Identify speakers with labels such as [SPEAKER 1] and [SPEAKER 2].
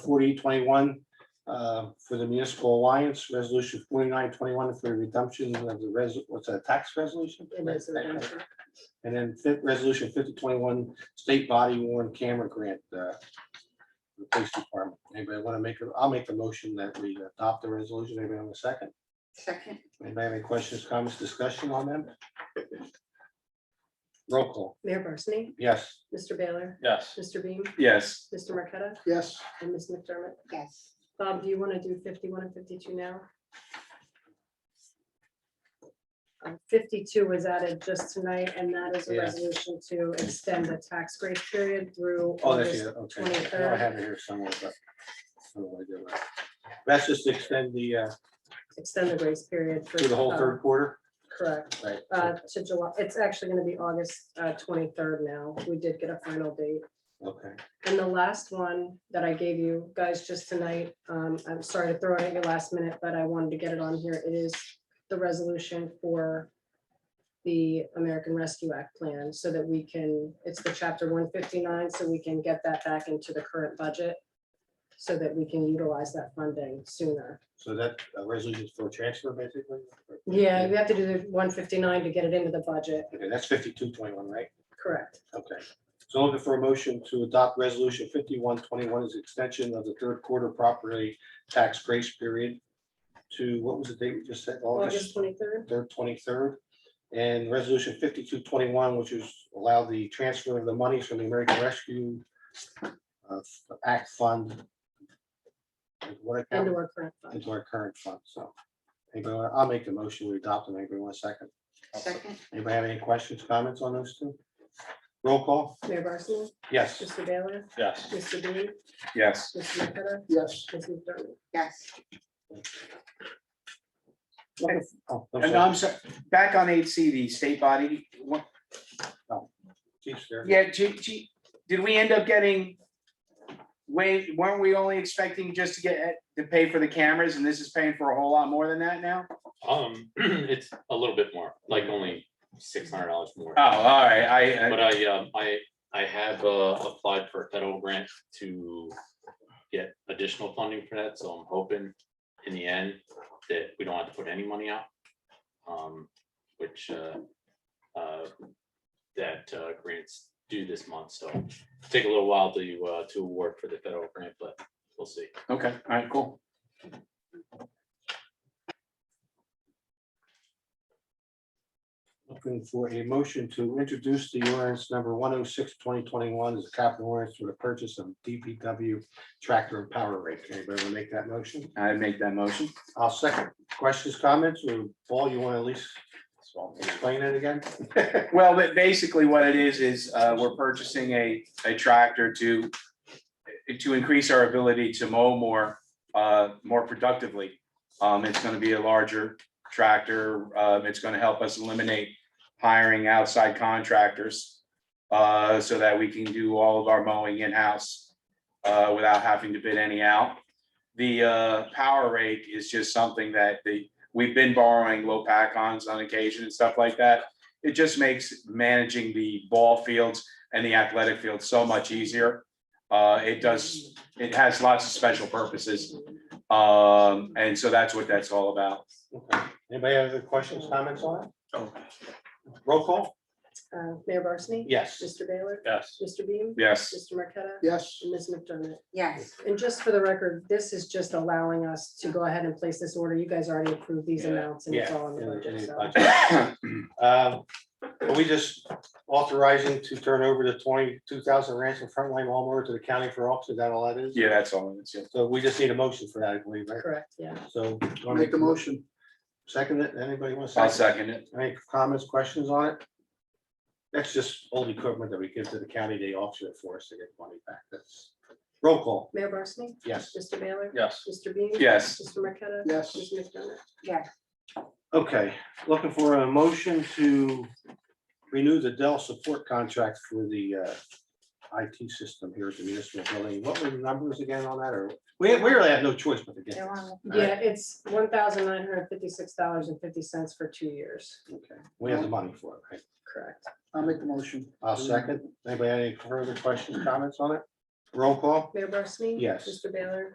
[SPEAKER 1] forty twenty-one uh, for the municipal alliance, resolution forty-nine twenty-one for redemption of the res, what's that, tax resolution?
[SPEAKER 2] It is an action.
[SPEAKER 1] And then fifth, resolution fifty twenty-one, state body worn camera grant. uh, for the Police department. Anybody want to make, a- I'll make the motion that we adopt the resolution. Anybody on the second?
[SPEAKER 2] Second,
[SPEAKER 1] Anybody have any questions, comments, discussion on them? Roll call,
[SPEAKER 3] Mayor Barsney?
[SPEAKER 1] yes.
[SPEAKER 3] Mr. Baylor?
[SPEAKER 4] Yes.
[SPEAKER 3] Mr. Beam?
[SPEAKER 4] Yes.
[SPEAKER 3] Mr. Marqueta?
[SPEAKER 1] Yes.
[SPEAKER 3] And Ms. McDermott?
[SPEAKER 2] yes.
[SPEAKER 3] Bob, do you want to do fifty-one and fifty-two now? Um, Fifty-two was added just tonight, and that is a
[SPEAKER 1] Yeah.
[SPEAKER 3] resolution to extend the tax grace period through
[SPEAKER 1] Oh, that's
[SPEAKER 3] August.
[SPEAKER 1] it, okay. I know I have it here somewhere, but. I don't know what I did with it. That's just to extend the, uh,
[SPEAKER 3] Extend the grace period. for
[SPEAKER 1] through the whole
[SPEAKER 3] uh,
[SPEAKER 1] third quarter,
[SPEAKER 3] Correct,
[SPEAKER 1] right?
[SPEAKER 3] uh, to July, it's actually going to be August uh, twenty-third now. We did get a final date.
[SPEAKER 1] Okay,
[SPEAKER 3] And the last one that I gave you guys just tonight, um, I'm sorry to throw it at you last minute, but I wanted to get it on here. It is the resolution for the American Rescue Act plan so that we can, it's the chapter one fifty-nine, so we can get that back into the current budget so that we can utilize that funding sooner.
[SPEAKER 1] so that uh, resolution is for transfer basically?
[SPEAKER 3] Yeah, we have to do the one fifty-nine to get it into the budget,
[SPEAKER 1] Okay, that's fifty-two twenty-one, right?
[SPEAKER 3] correct?
[SPEAKER 1] Okay, so looking for a motion to adopt resolution fifty-one twenty-one as extension of the third quarter property tax grace period to, what was the date we just said,
[SPEAKER 3] August
[SPEAKER 1] August
[SPEAKER 3] twenty-third?
[SPEAKER 1] third, twenty-third? And resolution fifty-two twenty-one, which is allow the transfer of the monies from the American Rescue uh, Act Fund. What account?
[SPEAKER 3] Into our current fund.
[SPEAKER 1] into our current fund, so. Anybody, wanna- I'll make the motion, we adopt them, anybody want a second?
[SPEAKER 2] Second,
[SPEAKER 1] Anybody have any questions, comments on those two? Roll call,
[SPEAKER 3] Mayor Barsney?
[SPEAKER 1] yes.
[SPEAKER 3] Mr. Baylor?
[SPEAKER 4] Yes.
[SPEAKER 3] Mr. Dean?
[SPEAKER 4] Yes.
[SPEAKER 3] Mr. Marqueta?
[SPEAKER 1] Yes.
[SPEAKER 3] Ms. McDermott?
[SPEAKER 2] yes.
[SPEAKER 1] Oh, I'm
[SPEAKER 4] And
[SPEAKER 1] sorry.
[SPEAKER 4] I'm sorry, back on eight C, the state body, what-
[SPEAKER 1] Chief's there.
[SPEAKER 4] yeah, G, G, did we end up getting? Wait, weren't we only expecting just to get, to pay for the cameras and this is paying for a whole lot more than that now?
[SPEAKER 5] Um, it's a little bit more, like only six hundred dollars more.
[SPEAKER 4] Oh, all right,
[SPEAKER 5] But
[SPEAKER 4] I,
[SPEAKER 5] I, um, I, I have, uh, applied for a federal grant to get additional funding for that, so I'm hoping in the end that we don't have to put any money out. Um, which, uh, uh, that, uh, grants due this month, so take a little while to, uh, to award for the federal grant, but we'll see.
[SPEAKER 4] okay, all right, cool.
[SPEAKER 1] Looking for a motion to introduce the ordinance number 106 2021 as a capital ordinance for the purchase of DPW tractor and power rake. Anybody want to make that motion?
[SPEAKER 4] I make that motion.
[SPEAKER 1] I'll second. Questions, comments, or Paul, you want to at least explain it again?
[SPEAKER 4] Well, but basically what it is, is uh, we're purchasing a, a tractor to, to increase our ability to mow more, uh, more productively. Um, It's going to be a larger tractor. Um, It's going to help us eliminate hiring outside contractors uh, so that we can do all of our mowing in-house uh, without having to bid any out. The uh, power rake is just something that the, we've been borrowing low pack ons on occasion and stuff like that it just makes managing the ball fields and the athletic field so much easier. Uh, it does, it has lots of special purposes. Um, and so that's what that's all about.
[SPEAKER 1] Okay. Anybody have other questions, comments on it? Roll call?
[SPEAKER 3] Uh, Mayor Barsney?
[SPEAKER 1] Yes.
[SPEAKER 3] Mr. Baylor?
[SPEAKER 5] Yes.
[SPEAKER 3] Mr. Beam?
[SPEAKER 4] Yes,
[SPEAKER 3] Mr. Marqueta?
[SPEAKER 1] Yes.
[SPEAKER 3] And Ms. McDermott.
[SPEAKER 2] Yes,
[SPEAKER 3] And just for the record, this is just allowing us to go ahead and place this order. You guys already approved these
[SPEAKER 5] Yeah,
[SPEAKER 3] amounts and it's all in the budget. so.
[SPEAKER 1] Yeah. Um, Are we just authorizing to turn over the twenty-two thousand ransom frontline lawnmower to the county for auction? Is that all that is?
[SPEAKER 4] yeah, that's all. it is, yeah.
[SPEAKER 1] So we just need a motion for that, I believe, right?
[SPEAKER 3] Correct, yeah.
[SPEAKER 1] So. Make the motion. Second it, anybody want to
[SPEAKER 4] I'll
[SPEAKER 1] second?
[SPEAKER 4] second it.
[SPEAKER 1] Any comments, questions on it? That's just old equipment that we give to the county, they auction it for us to get money back, that's roll call,
[SPEAKER 3] Mayor Barsney?
[SPEAKER 1] yes.
[SPEAKER 3] Mr. Baylor?
[SPEAKER 4] Yes.
[SPEAKER 3] Mr. Beam?
[SPEAKER 4] Yes.
[SPEAKER 3] Mr. Marqueta?
[SPEAKER 1] Yes.
[SPEAKER 3] Ms. McDermott.
[SPEAKER 2] yes,
[SPEAKER 1] Okay, looking for a motion to renew the Dell support contract for the uh, IT system here at the municipal building. What were the numbers again on that, or, we, we really have no choice but to get
[SPEAKER 2] they're on
[SPEAKER 1] this.
[SPEAKER 2] the
[SPEAKER 3] Yeah, it's one thousand nine hundred fifty-six dollars and fifty cents for two years.
[SPEAKER 1] Okay, We have the money for it, right?
[SPEAKER 3] Correct.
[SPEAKER 6] I'll make the motion.
[SPEAKER 1] I'll second. Anybody have any further questions, comments on it? Roll call?
[SPEAKER 3] Mayor Barsney?
[SPEAKER 1] Yes.
[SPEAKER 3] Mr. Baylor?